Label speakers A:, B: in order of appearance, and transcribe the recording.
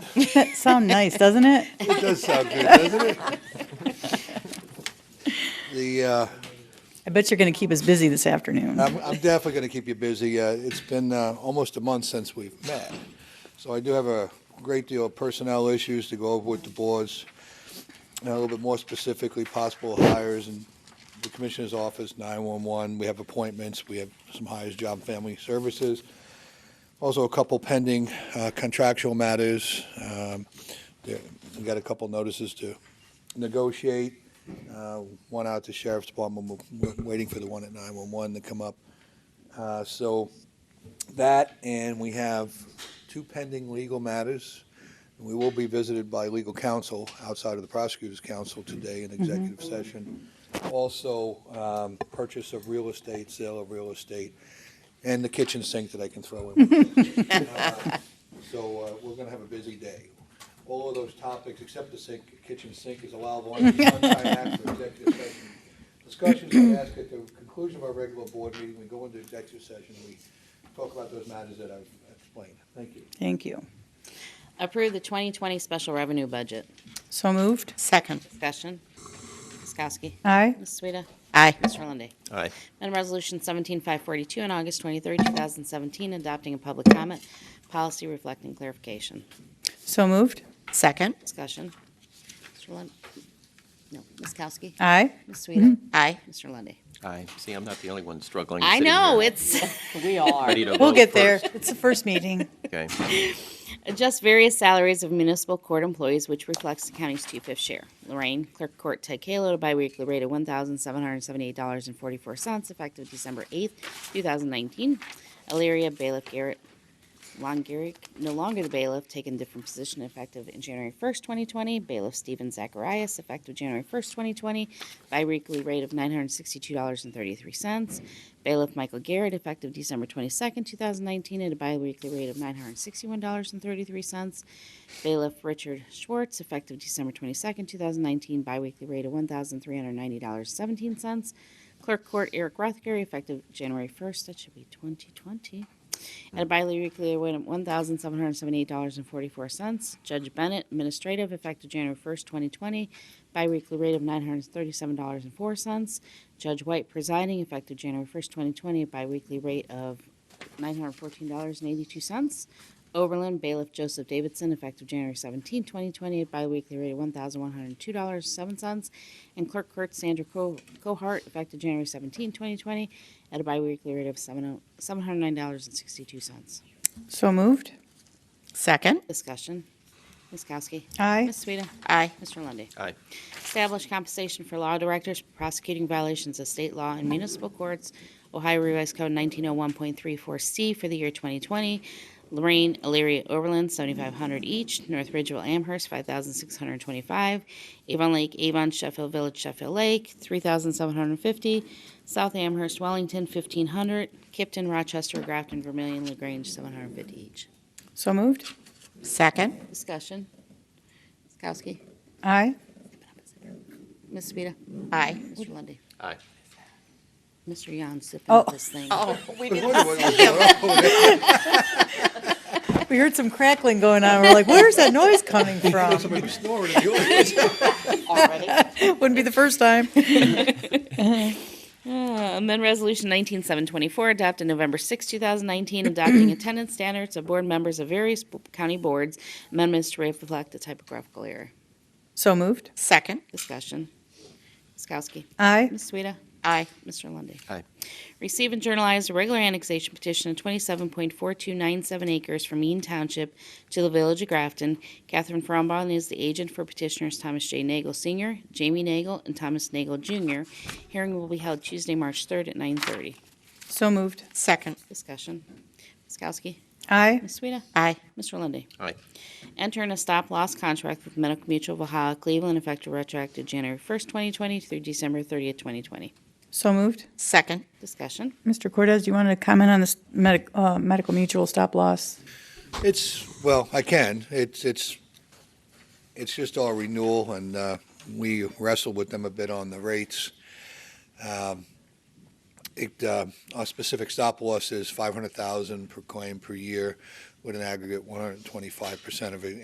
A: That sound nice, doesn't it?
B: It does sound good, doesn't it? The, uh,
A: I bet you're going to keep us busy this afternoon.
B: I'm I'm definitely going to keep you busy. Uh, It's been uh, almost a month since we've met, so I do have a great deal of personnel issues to go over with the boards, and a little bit more specifically, possible hires in the Commissioner's Office, 911. We have appointments, we have some hires, Job and Family Services, also a couple pending uh, contractual matters. Um, there- We got a couple notices to negotiate, uh, one out to Sheriff's Department, we're we're waiting for the one at 911 to come up. Uh, So that, and we have two pending legal matters. We will be visited by legal counsel outside of the prosecutor's counsel today in executive session. Also, um, purchase of real estate, sale of real estate, and the kitchen sink that I can throw in. Uh, So uh, we're going to have a busy day. All of those topics, except the sink, kitchen sink is allowable under the one-time act for executive session. Discussions are asked at the conclusion of our regular board meeting, we go into executive session, we talk about those matters that I've explained. Thank you.
A: Thank you.
C: Approve the 2020 special revenue budget.
A: So moved?
D: Second.
C: Discussion. Ms. Kowski.
A: Aye.
C: Ms. Sueda.
D: Aye.
C: Mr. Lundey.
E: Aye.
C: And Resolution 17542 on August 23, 2017, adopting a public comment policy reflecting clarification.
A: So moved?
D: Second.
C: Discussion. Mr. Lund, no, Ms. Kowski.
A: Aye.
C: Ms. Sueda.
D: Mm-hmm. Aye.
C: Mr. Lundey.
E: Aye. See, I'm not the only one struggling.
C: I
E: sitting
C: know,
E: here
C: it's.
D: We are.
E: ready to
A: We'll
E: vote
A: get there.
E: first.
A: It's the first meeting.
E: Okay.
C: Adjust various salaries of municipal court employees, which reflects the county's two-fifth share. Lorraine, Clerk of Court Ted Kahlo, to biweekly rate of one thousand seven hundred seventy-eight dollars and forty-four cents, effective December eighth, two thousand nineteen. Elyria Bailiff Garrett Longarek, no longer the bailiff, taken different position effective in January first, twenty twenty. Bailiff Stephen Zacharias, effective January first, twenty twenty, biweekly rate of nine hundred sixty-two dollars and thirty-three cents. Bailiff Michael Garrett, effective December 22nd, 2019, at a biweekly rate of $961.33. Bailiff Richard Schwartz, effective December 22nd, 2019, biweekly rate of $1,390.17. Clerk Court Eric Rothgary, effective January 1st, that should be 2020, at a biweekly rate of $1,778.44. Judge Bennett, administrative, effective January 1st, 2020, biweekly rate of $937.04. Judge White presiding, effective January 1st, 2020, at biweekly rate of $914.82. Overland bailiff Joseph Davidson, effective January 17, 2020, at biweekly rate of $1,102.07. And clerk Kurt Sandra Co- Cohart, effective January 17, 2020, at a biweekly rate of oh, 70- $709.62.
A: So moved?
D: Second.
C: Discussion. Ms. Kowski.
A: Aye.
C: Ms. Sueda.
D: Aye.
C: Mr. Lundy.
E: Aye.
C: Establish compensation for law directors prosecuting violations of state law in municipal courts, Ohio Revised Code 1901.34C for the year 2020. Lorraine, Elyria, Overland, 7,500 each. North Ridgeville, Amherst, 5,625. Avon Lake, Avon, Sheffield Village, Sheffield Lake, 3,750. South Amherst, Wellington, 1,500. Kipton, Rochester, Grafton, Vermillion, LaGrange, 750 each.
A: So moved?
D: Second.
C: Discussion. Ms. Kowski.
A: Aye.
C: Ms. Sueda.
D: Aye.
C: Mr. Lundy.
E: Aye.
C: Mr. Yon sipping
A: Oh.
C: this thing.
D: Oh, we did.
A: We heard some crackling going on. We're like, where's that noise coming from?
B: Somebody snoring in the audience.
A: Wouldn't be the first time.
C: Uh, Amend Resolution 19724, adopted November 6, 2019, adopting attendance standards of board members of various b- county boards. Amendments to reflect the typographical error.
A: So moved?
D: Second.
C: Discussion. Ms. Kowski.
A: Aye.
C: Ms. Sueda.
D: Aye.
C: Mr. Lundy.
E: Aye.
C: Receive and journalize a regular annexation petition of 27.4297 acres from Eaton Township to the Village of Grafton. Catherine Frombaugh is the agent for petitioners Thomas J. Nagel Sr., Jamie Nagel, and Thomas Nagel Jr. Hearing will be held Tuesday, March 3rd at 9:30.
A: So moved?
D: Second.
C: Discussion. Ms. Kowski.
A: Aye.
C: Ms. Sueda.
D: Aye.
C: Mr. Lundy.
E: Aye.
C: Enter in a stop-loss contract with Medical Mutual of Ohio Cleveland effective retroactive January 1st, 2020 through December 30th, 2020.
A: So moved?
D: Second.
C: Discussion.
A: Mr. Cortez, do you want to comment on this medic- uh, medical mutual stop loss?
B: It's, well, I can. It's, it's, it's just our renewal, and uh, we wrestled with them a bit on the rates. Um, It, uh, our specific stop loss is 500,000 per claim per year with an aggregate 125% of it